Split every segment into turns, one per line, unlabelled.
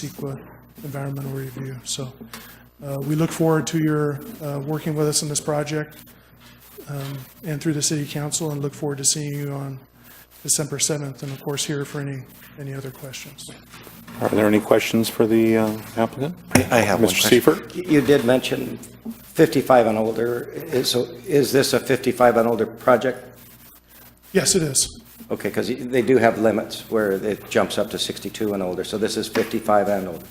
CEQA environmental review. So uh, we look forward to your uh, working with us on this project um, and through the city council, and look forward to seeing you on December 7th, and of course, here for any, any other questions.
Are there any questions for the uh, applicant?
I have one
Mr.
question.
Seifert?
You did mention 55 and older. Is, so is this a 55 and older project?
Yes, it is.
Okay, because they do have limits where it jumps up to 62 and older, so this is 55 and older.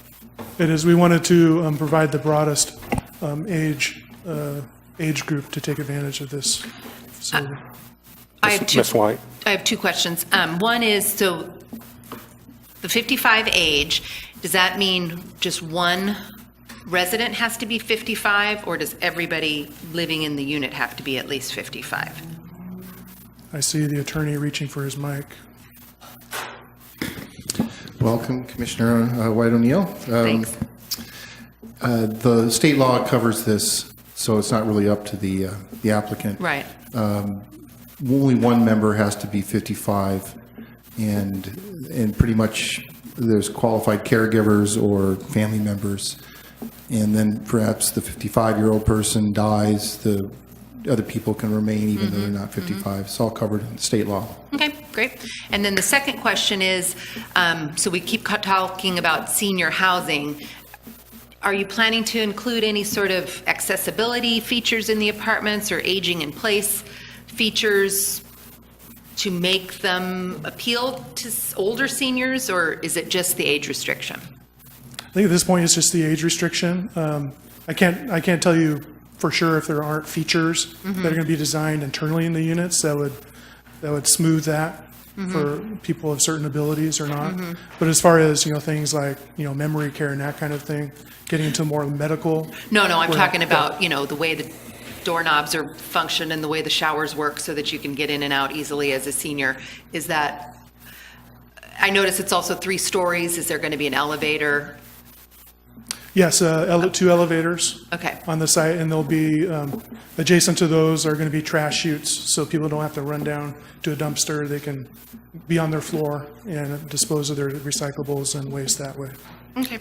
It is, we wanted to um, provide the broadest um, age, uh, age group to take advantage of this facility.
I have two,
Ms. White?
I have two questions. Um, One is, so the 55 age, does that mean just one resident has to be 55, or does everybody living in the unit have to be at least 55?
I see the attorney reaching for his mic.
Welcome, Commissioner uh, White O'Neill. Um,
Thanks.
uh, The state law covers this, so it's not really up to the uh, the applicant.
Right.
Only one member has to be 55, and, and pretty much there's qualified caregivers or family members. And then perhaps the 55-year-old person dies, the other people can remain even
Mm-hmm.
though they're not 55. It's all covered in state law.
Okay, great. And then the second question is, um, so we keep co- talking about senior housing. Are you planning to include any sort of accessibility features in the apartments or aging in place features to make them appeal to s- older seniors, or is it just the age restriction?
I think at this point, it's just the age restriction. Um, I can't, I can't tell you for sure if there aren't features that are going to be designed internally in the units that would, that would smooth that for people of certain abilities or not. But as far as, you know, things like, you know, memory care and that kind of thing, getting into more medical,
No, no, I'm
Well,
talking about, you know, the way the doorknobs are functioned and the way the showers work so that you can get in and out easily as a senior. Is that, I notice it's also three stories. Is there going to be an elevator?
yes, uh, ele- two elevators.
Okay.
On the site, and there'll be, um, adjacent to those are going to be trash chutes, so people don't have to run down to a dumpster. They can be on their floor and dispose of their recyclables and waste that way.
Okay.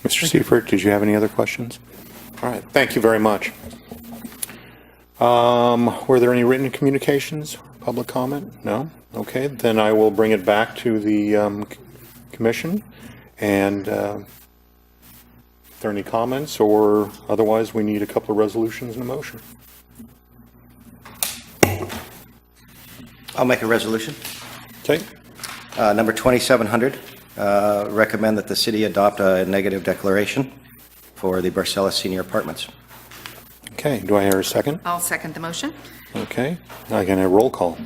Mr. Seifert, did you have any other questions? All right, thank you very much. Um, Were there any written communications, public comment? No? Okay, then I will bring it back to the um, c- commission, and uh, if there are any comments, or otherwise, we need a couple of resolutions and a motion.
I'll make a resolution.
Okay?
Uh, Number 2700, uh, recommend that the city adopt a negative declaration for the Barcellus Senior Apartments.
Okay, do I hear a second?
I'll second the motion.
Okay, I can have roll call.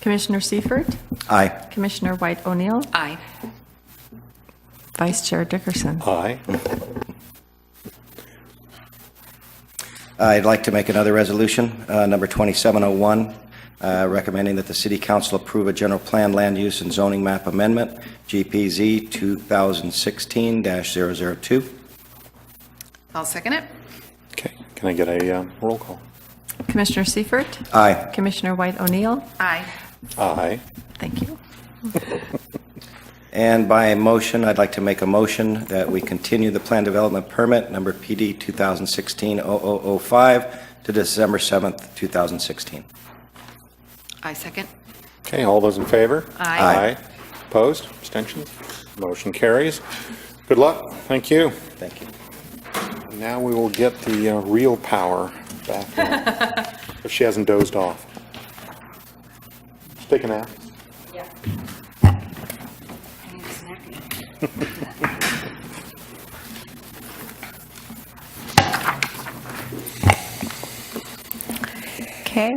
Commissioner Seifert,
Aye.
Commissioner White O'Neill,
Aye.
Vice Chair Dickerson.
Aye.
I'd like to make another resolution, uh, number 2701, uh, recommending that the city council approve a general plan land use and zoning map amendment, GPZ 2016-002.
I'll second it.
Okay, can I get a um, roll call?
Commissioner Seifert,
Aye.
Commissioner White O'Neill,
Aye.
Aye.
thank you.
And by motion, I'd like to make a motion that we continue the plan development permit, number PD 2016-0005, to December 7th, 2016.
I second.
Okay, all those in favor?
Aye.
Opposed? Abstentions? Motion carries. Good luck. Thank you.
Thank you.
Now we will get the uh, real power back on, if she hasn't dozed off. Just Take a nap.
Okay.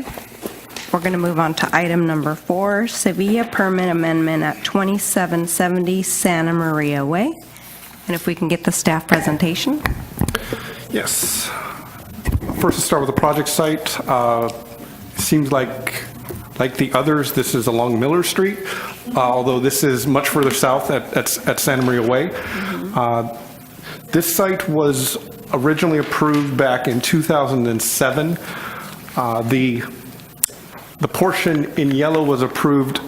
We're going to move on to item number four, Sevilla Permit Amendment at 2770 Santa Maria Way. And if we can get the staff presentation.
Yes. First, let's start with the project site. Uh, Seems like, like the others, this is along Miller Street, uh, although this is much further south at at at Santa Maria Way. Uh, This site was originally approved back in 2007. Uh, The, the portion in yellow was approved